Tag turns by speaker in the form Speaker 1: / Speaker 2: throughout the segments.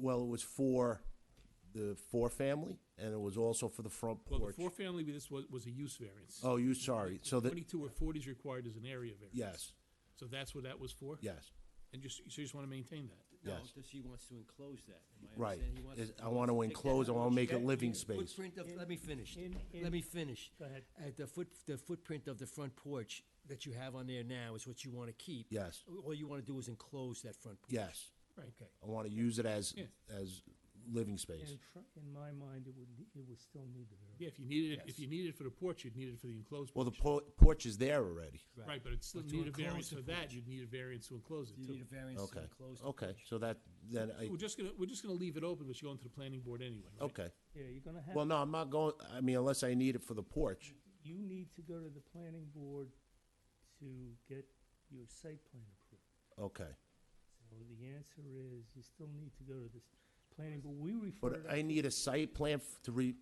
Speaker 1: well, it was for the four-family, and it was also for the front
Speaker 2: Well, the
Speaker 1: porch.
Speaker 2: four-family, this was, was a use variance.
Speaker 1: Oh, you, sorry, so that,
Speaker 2: Twenty-two or forty is required as an area variance.
Speaker 1: yes,
Speaker 2: So that's what that was for?
Speaker 1: yes,
Speaker 2: And just, so you just want to maintain that?
Speaker 3: No,
Speaker 1: Yes.
Speaker 3: does he wants to enclose that. Am I
Speaker 1: right.
Speaker 3: understanding? He wants
Speaker 1: Is-
Speaker 3: to
Speaker 1: I want to
Speaker 3: take that
Speaker 1: enclose, I want to make it
Speaker 3: out.
Speaker 1: living
Speaker 3: The
Speaker 1: space.
Speaker 3: Footprint of, let me finish.
Speaker 4: in- in-
Speaker 3: Let me finish.
Speaker 4: Go ahead.
Speaker 3: At the foot, the footprint of the front porch that you have on there now is what you want to keep.
Speaker 1: Yes,
Speaker 3: All you want to do is enclose that front porch.
Speaker 1: yes.
Speaker 2: Right.
Speaker 3: Okay.
Speaker 1: I want to use it as,
Speaker 2: Yeah.
Speaker 1: as living space.
Speaker 4: In fr- In my mind, it would, ne- it would still need the variance.
Speaker 2: Yeah, if you needed it, if you needed it for the porch, you'd need it for the enclosed
Speaker 1: Well,
Speaker 2: porch.
Speaker 1: the por- porch is there already.
Speaker 2: Right, but it's still
Speaker 3: But to
Speaker 2: need a
Speaker 3: enclose
Speaker 2: variance
Speaker 3: the
Speaker 2: for that, you'd need a variance to enclose it
Speaker 3: You need
Speaker 2: too.
Speaker 3: a variance to
Speaker 1: Okay,
Speaker 3: enclose. the
Speaker 1: okay,
Speaker 3: porch.
Speaker 1: so that, then I,
Speaker 2: We're just gonna, we're just gonna leave it open, but you're going to the planning board anyway, right?
Speaker 1: okay.
Speaker 4: Yeah, you're gonna have,
Speaker 1: Well, no, I'm not going, I mean, unless I need it for the porch.
Speaker 4: you need to go to the planning board to get your site plan approved.
Speaker 1: Okay,
Speaker 4: So the answer is, you still need to go to this planning, board. we refer
Speaker 1: but
Speaker 4: to
Speaker 1: I need a site plan f- to re,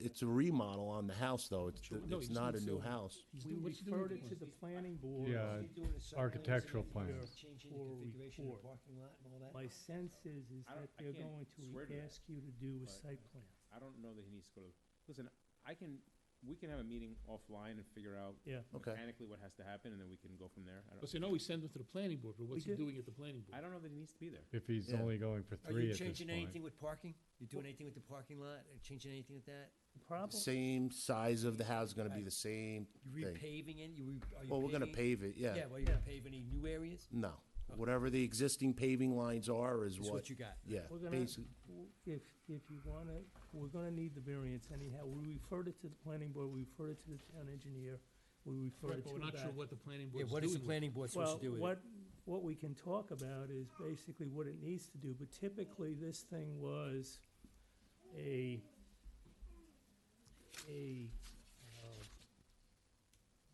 Speaker 1: it's a remodel on the house, though. It's,
Speaker 2: Sure. No,
Speaker 1: it's
Speaker 2: he's
Speaker 1: not a
Speaker 2: doing
Speaker 1: new
Speaker 2: so-
Speaker 1: house.
Speaker 2: He's
Speaker 4: We
Speaker 2: doing- what's he doing
Speaker 4: referred
Speaker 2: with
Speaker 4: it to
Speaker 2: the
Speaker 4: the planning board.
Speaker 5: Yeah,
Speaker 3: He's doing a site plan, so
Speaker 5: architectural
Speaker 3: he's gonna
Speaker 5: plans.
Speaker 3: Changing the
Speaker 4: Or
Speaker 3: configuration of the
Speaker 4: report.
Speaker 3: parking lot and all that.
Speaker 4: My sense is, is that
Speaker 6: I don't- I
Speaker 4: they're
Speaker 6: can't
Speaker 4: going
Speaker 6: swear to
Speaker 4: to
Speaker 6: that,
Speaker 4: ask you to do a
Speaker 6: but-
Speaker 4: site plan.
Speaker 6: I don't know that he needs to go to, listen, I can, we can have a meeting offline and figure out
Speaker 4: Yeah,
Speaker 1: Okay.
Speaker 6: mechanically what has to happen, and then we can go from there. I
Speaker 2: Well,
Speaker 6: don't,
Speaker 2: so no, we send it to the planning board, but what's he
Speaker 4: did.
Speaker 2: doing at the planning
Speaker 6: I
Speaker 2: board?
Speaker 6: don't know that he needs to be there.
Speaker 5: If he's
Speaker 1: Yeah.
Speaker 5: only going for
Speaker 3: Are you
Speaker 5: three at this
Speaker 3: changing anything
Speaker 5: point.
Speaker 3: with parking? You doing anything with the parking lot? Or Changing anything with that?
Speaker 4: the problem,
Speaker 1: Same size of the house, gonna be the same
Speaker 3: You
Speaker 1: thing.
Speaker 3: repaving it? You, re- are you?
Speaker 1: Well, we're gonna
Speaker 3: paving-
Speaker 1: pave it, yeah.
Speaker 3: Yeah, well, you gonna pave any new areas?
Speaker 1: No, whatever the existing paving lines are is
Speaker 3: Is
Speaker 1: what,
Speaker 3: what you got?
Speaker 1: yeah,
Speaker 4: We're gonna-
Speaker 1: basic,
Speaker 4: w- if, if you wanna, we're gonna need the variance anyhow, we referred it to the planning board, we referred it to the town engineer, we referred
Speaker 2: Right,
Speaker 4: it
Speaker 2: but
Speaker 4: to
Speaker 2: we're
Speaker 4: the
Speaker 2: not sure
Speaker 4: back.
Speaker 2: what the planning
Speaker 3: Yeah,
Speaker 2: board's
Speaker 3: what is the
Speaker 2: doing with it.
Speaker 3: planning board supposed
Speaker 4: Well,
Speaker 3: to do with it?
Speaker 4: what, what we can talk about is basically what it needs to do, but typically, this thing was a, a uh,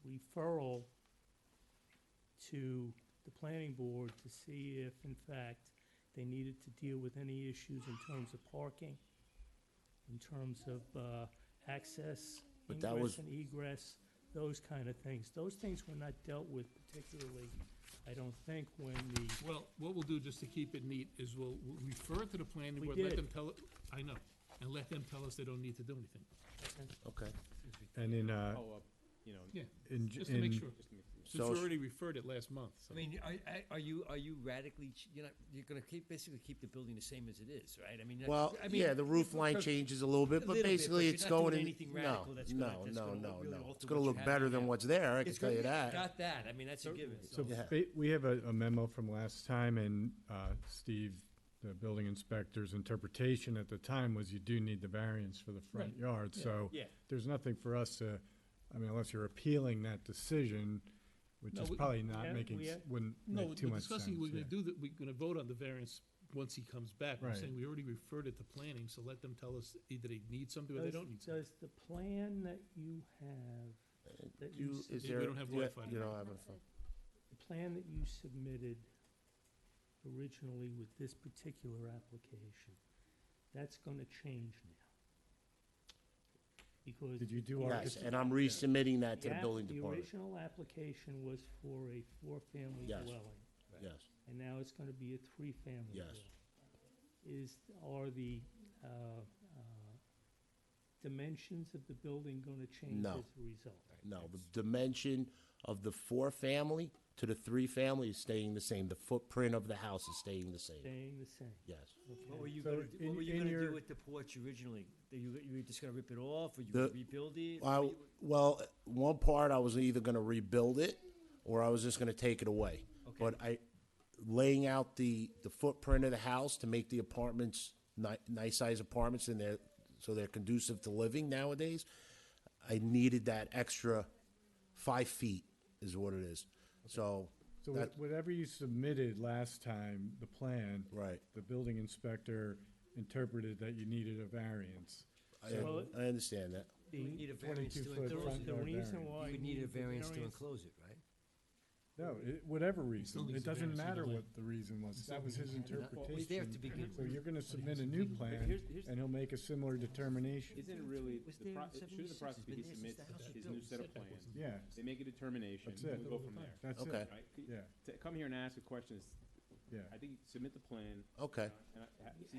Speaker 4: referral to the planning board to see if, in fact, they needed to deal with any issues in terms of parking, in terms of uh, access,
Speaker 1: But that was-
Speaker 4: ingress and egress, those kind of things. Those things were not dealt with particularly, I don't think, when the,
Speaker 2: Well, what we'll do, just to keep it neat, is we'll we'll refer it to the planning
Speaker 4: We
Speaker 2: board, let
Speaker 4: did.
Speaker 2: them tell, it- I know, and let them tell us they don't need to do anything.
Speaker 1: okay.
Speaker 5: And in, uh,
Speaker 6: Oh, uh, you know,
Speaker 2: Yeah,
Speaker 5: in,
Speaker 2: just to make
Speaker 5: in,
Speaker 2: sure,
Speaker 6: just to make-
Speaker 2: since
Speaker 1: So-
Speaker 2: we already referred it last month, so.
Speaker 3: I mean, are, are- are you, are you radically, ch- you're not, you're gonna keep, basically keep the building the same as it is, right? I mean. that's-
Speaker 1: Well,
Speaker 3: I mean,
Speaker 1: yeah, the roof line
Speaker 3: per-
Speaker 1: changes a little bit, but
Speaker 3: little bit,
Speaker 1: basically
Speaker 3: but
Speaker 1: it's
Speaker 3: you're not
Speaker 1: going
Speaker 3: doing
Speaker 1: in,
Speaker 3: anything
Speaker 1: no,
Speaker 3: radical that's
Speaker 1: no,
Speaker 3: gonna- that's
Speaker 1: no,
Speaker 3: gonna
Speaker 1: no,
Speaker 3: look really
Speaker 1: no.
Speaker 3: alter
Speaker 1: It's gonna
Speaker 3: what you
Speaker 1: look
Speaker 3: have
Speaker 1: better
Speaker 3: right
Speaker 1: than
Speaker 3: now.
Speaker 1: what's there, I can
Speaker 3: it's
Speaker 1: tell
Speaker 3: gonna-
Speaker 1: you
Speaker 3: yeah,
Speaker 1: that.
Speaker 3: Got that, I mean, that's a given,
Speaker 5: so
Speaker 3: so.
Speaker 1: Yeah.
Speaker 5: ba- we have a a memo from last time and uh, Steve, the building inspector's interpretation at the time was you do need the variance for the front
Speaker 2: Right.
Speaker 5: yard, so.
Speaker 3: Yeah.
Speaker 5: There's nothing for us to, I mean, unless you're appealing that decision, which
Speaker 2: No,
Speaker 5: is
Speaker 2: we-
Speaker 5: probably not
Speaker 4: Yeah,
Speaker 5: making,
Speaker 4: we-
Speaker 5: s- wouldn't
Speaker 2: No,
Speaker 5: make
Speaker 2: we're
Speaker 5: too much sense.
Speaker 2: discussing, we're gonna
Speaker 5: yeah.
Speaker 2: do that, we're gonna vote on the variance once he comes back. I'm
Speaker 5: Right.
Speaker 2: saying we already referred it to planning, so let them tell us either they need something or they
Speaker 4: does,
Speaker 2: don't need something.
Speaker 4: does the plan that you have, that you
Speaker 1: You, is
Speaker 2: We
Speaker 1: there,
Speaker 2: don't have
Speaker 1: you
Speaker 2: Wi-Fi.
Speaker 1: you don't have a phone?
Speaker 4: the plan that you submitted originally with this particular application, that's gonna change now. Because.
Speaker 5: Did you do
Speaker 4: the
Speaker 1: Yes,
Speaker 5: architect-
Speaker 1: and I'm resubmitting that to the
Speaker 4: app-
Speaker 1: building department,
Speaker 4: The original application was for a four-family
Speaker 1: Yes.
Speaker 4: dwelling,
Speaker 1: yes.
Speaker 4: and now it's gonna be a three-family
Speaker 1: Yes.
Speaker 4: dwelling. Is, are the, uh, uh, dimensions of the building gonna change
Speaker 1: No.
Speaker 4: as a result?
Speaker 1: No, the dimension of the four-family to the three-family is staying the same. The footprint of the house is staying the same,
Speaker 4: Staying the same,
Speaker 1: yes.
Speaker 4: okay?
Speaker 3: What were you
Speaker 5: So
Speaker 3: gonna, do-
Speaker 5: in-
Speaker 3: what were you
Speaker 5: in
Speaker 3: gonna do
Speaker 5: your-
Speaker 3: with the porch originally? That You, you were just gonna rip it off, or you
Speaker 1: The-
Speaker 3: would rebuild it?
Speaker 1: I, well, one part, I was either gonna rebuild it, or I was just gonna take it away. But I, laying out the, the footprint of the house to make the apartments ni- nice-sized apartments and they're, so they're conducive to living nowadays, I needed that extra five feet is what it is. So,
Speaker 5: So
Speaker 1: that,
Speaker 5: wha- whatever you submitted last time, the plan.
Speaker 1: Right.
Speaker 5: The building inspector interpreted that you needed a variance.
Speaker 1: I,
Speaker 4: Well-
Speaker 1: I understand that.
Speaker 3: You would need a variance to
Speaker 5: 22 foot
Speaker 4: The
Speaker 3: enclose
Speaker 4: re-
Speaker 5: front
Speaker 3: it.
Speaker 4: The
Speaker 5: yard
Speaker 4: reason
Speaker 5: variance.
Speaker 4: why.
Speaker 3: You would need a variance to enclose it, right?
Speaker 5: No, it, whatever reason,
Speaker 2: needs
Speaker 5: it
Speaker 2: a
Speaker 5: doesn't
Speaker 2: variance either
Speaker 5: matter
Speaker 2: way.
Speaker 5: what the reason was, that was his
Speaker 3: Well, it was there to begin
Speaker 5: interpretation.
Speaker 3: with.
Speaker 5: So you're gonna submit a new plan,
Speaker 6: here's- here's-
Speaker 5: and he'll make a similar determination,
Speaker 6: Isn't it really,
Speaker 3: was
Speaker 6: the
Speaker 3: there
Speaker 6: pro,
Speaker 3: in
Speaker 6: it should
Speaker 3: 76.
Speaker 6: the process
Speaker 3: It's
Speaker 6: be
Speaker 3: been
Speaker 6: he
Speaker 3: there since
Speaker 6: submits
Speaker 3: the house was
Speaker 6: his
Speaker 3: built.
Speaker 6: new set of
Speaker 2: Setback
Speaker 6: plans?
Speaker 2: wasn't-
Speaker 5: yeah,
Speaker 6: They make a determination,
Speaker 5: That's
Speaker 6: and
Speaker 5: it.
Speaker 6: we go from there,
Speaker 5: that's
Speaker 1: Okay.
Speaker 5: it,
Speaker 6: right?
Speaker 5: yeah,
Speaker 6: To come here and ask a question is,
Speaker 5: yeah.
Speaker 6: I think submit the plan,
Speaker 1: Okay.
Speaker 6: and I, ha- see